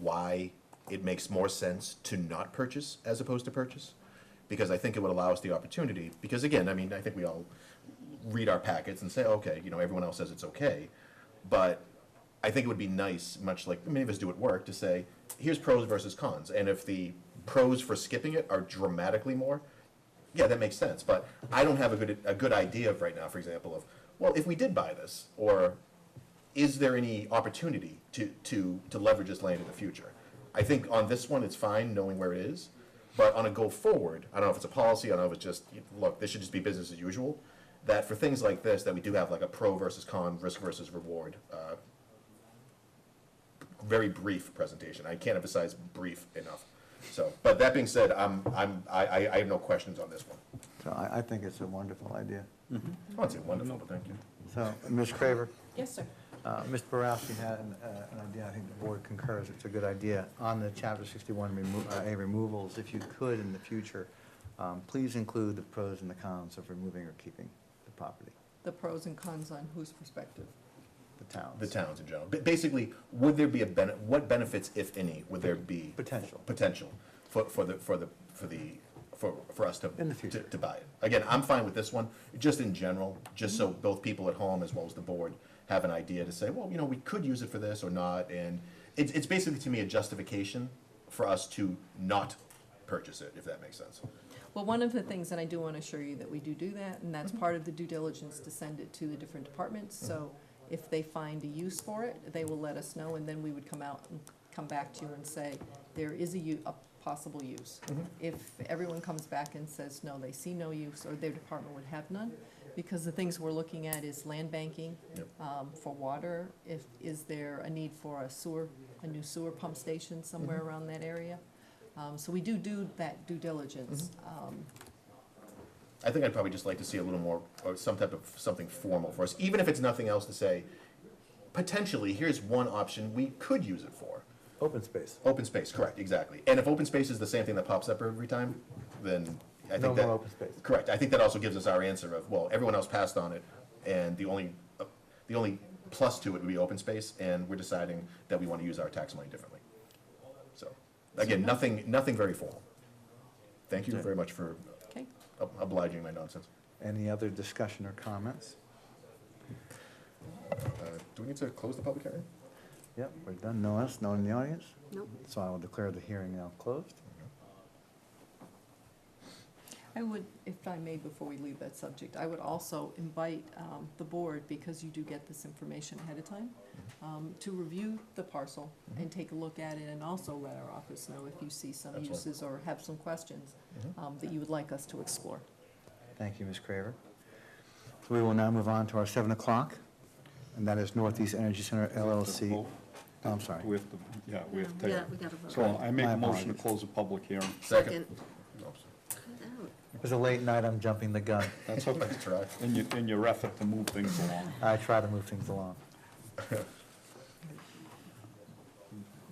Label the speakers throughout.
Speaker 1: why it makes more sense to not purchase as opposed to purchase. Because I think it would allow us the opportunity, because again, I mean, I think we all read our packets and say, okay, you know, everyone else says it's okay. But I think it would be nice, much like many of us do at work, to say, here's pros versus cons. And if the pros for skipping it are dramatically more, yeah, that makes sense. But I don't have a good, a good idea of right now, for example, of, well, if we did buy this, or is there any opportunity to, to, to leverage this land in the future? I think on this one, it's fine knowing where it is, but on a go forward, I don't know if it's a policy, I don't know if it's just, look, this should just be business as usual. That for things like this, that we do have like a pro versus con, risk versus reward, uh, very brief presentation. I can't emphasize brief enough. So, but that being said, I'm, I'm, I, I I have no questions on this one.
Speaker 2: So I, I think it's a wonderful idea.
Speaker 1: Oh, it's wonderful, but thank you.
Speaker 2: So, Ms. Craver,
Speaker 3: Yes, sir.
Speaker 2: uh, Ms. Borowski had an, uh, an idea, I think the board concurs, it's a good idea, on the chapter sixty-one remo- uh, A removals, if you could in the future, um, please include the pros and the cons of removing or keeping the property,
Speaker 3: The pros and cons on whose perspective?
Speaker 2: the towns.
Speaker 1: The towns in general. Ba- Basically, would there be a benefit, what benefits, if any, would there be?
Speaker 2: Potential.
Speaker 1: Potential for, for the, for the, for the, for, for us to.
Speaker 2: In the
Speaker 1: to-
Speaker 2: future.
Speaker 1: To buy it. Again, I'm fine with this one, just in general, just so both people at home as well as the board have an idea to say, well, you know, we could use it for this or not, and it's, it's basically to me a justification for us to not purchase it, if that makes sense.
Speaker 3: Well, one of the things, and I do want to assure you that we do do that, and that's part of the due diligence to send it to the different departments. So if they find a use for it, they will let us know, and then we would come out and come back to you and say, there is a u, a possible use. If everyone comes back and says, no, they see no use, or their department would have none, because the things we're looking at is land banking,
Speaker 1: Yep.
Speaker 3: um, for water, if, is there a need for a sewer, a new sewer pump station somewhere around that area? Um, so we do do that due diligence. Um,
Speaker 1: I think I'd probably just like to see a little more, or some type of, something formal for us, even if it's nothing else to say, potentially, here's one option we could use it for.
Speaker 2: Open space.
Speaker 1: Open space, correct, exactly. And if open space is the same thing that pops up every time, then I
Speaker 2: No
Speaker 1: think
Speaker 2: more
Speaker 1: that,
Speaker 2: open space.
Speaker 1: correct, I think that also gives us our answer of, well, everyone else passed on it, and the only, uh, the only plus to it would be open space, and we're deciding that we want to use our tax money differently. So, again, nothing, nothing very formal. Thank you very much for
Speaker 3: okay,
Speaker 1: ob- obliging my nonsense.
Speaker 2: Any other discussion or comments?
Speaker 1: Uh, Do we need to close the public hearing?
Speaker 2: Yep, we're done, no us, no one in the audience,
Speaker 4: Nope.
Speaker 2: so I will declare the hearing now closed.
Speaker 3: I would, if I may, before we leave that subject, I would also invite, um, the board, because you do get this information ahead of time, um, to review the parcel and take a look at it, and also let our office know if you see some
Speaker 1: Absolutely.
Speaker 3: uses or have some questions, um, that you would like us to explore.
Speaker 2: Thank you, Ms. Craver. So we will now move on to our 7 o'clock, and that is Northeast Energy Center LLC.
Speaker 5: Vote.
Speaker 2: Oh, I'm sorry.
Speaker 5: We have to, yeah, we have to
Speaker 4: We
Speaker 5: take
Speaker 4: got- we
Speaker 5: it.
Speaker 4: gotta vote.
Speaker 5: So I make
Speaker 2: My
Speaker 5: a motion to
Speaker 2: apologies.
Speaker 5: close the public hearing.
Speaker 4: Second.
Speaker 1: Oops.
Speaker 4: Cut out.
Speaker 2: It was a late night, I'm jumping the gun.
Speaker 5: That's okay,
Speaker 1: Nice try.
Speaker 5: in your, in your effort to move things along.
Speaker 2: I try to move things along.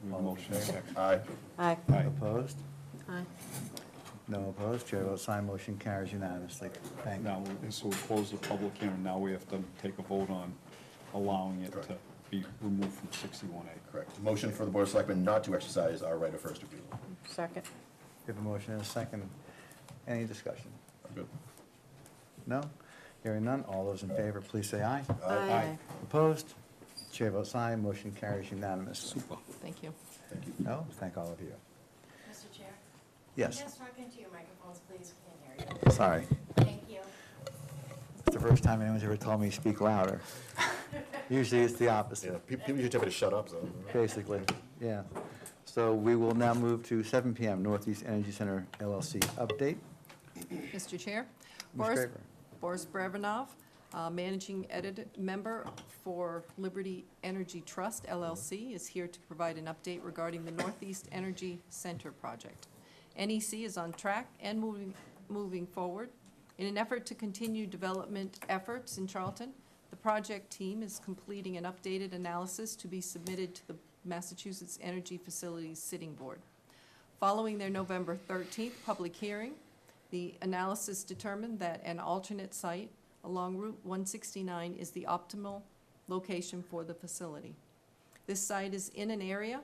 Speaker 5: We have a Motion second.
Speaker 1: Aye.
Speaker 4: Aye.
Speaker 5: Aye.
Speaker 2: Opposed?
Speaker 4: Aye.
Speaker 2: No opposed, chair votes aye, motion carries unanimously. Thank you.
Speaker 5: Now, so we close the public hearing, now we have to take a vote on allowing it to
Speaker 1: Correct.
Speaker 5: be removed from sixty-one A.
Speaker 1: Correct. Motion for the Board of Selectmen not to exercise our right of first refusal.
Speaker 4: Second.
Speaker 2: We have a motion and a second. Any discussion?
Speaker 1: I'm good.
Speaker 2: No? Hearing none, all those in favor, please say aye.
Speaker 4: Aye.
Speaker 2: Opposed? Chair votes aye, motion carries unanimously.
Speaker 5: Super.
Speaker 3: Thank you.
Speaker 2: No? Thank all of you.
Speaker 6: Mr. Chair?
Speaker 2: Yes,
Speaker 6: Just talk into your microphones, please, we can't hear you.
Speaker 2: sorry.
Speaker 6: Thank you.
Speaker 2: It's the first time anyone's ever told me to speak louder. Usually it's the
Speaker 1: Yeah,
Speaker 2: opposite,
Speaker 1: pe- people usually tell me to shut up, so.
Speaker 2: basically, yeah. So we will now move to 7 PM, Northeast Energy Center LLC update.
Speaker 3: Mr. Chair?
Speaker 2: Ms.
Speaker 3: Boris-
Speaker 2: Craver.
Speaker 3: Boris Brevinov, uh, Managing Edit Member for Liberty Energy Trust LLC, is here to provide an update regarding the Northeast Energy Center project. NEC is on track and moving, moving forward. In an effort to continue development efforts in Charlton, the project team is completing an updated analysis to be submitted to the Massachusetts Energy Facilities Sitting Board. Following their November 13th public hearing, the analysis determined that an alternate site along Route 169 is the optimal location for the facility. This site is in an area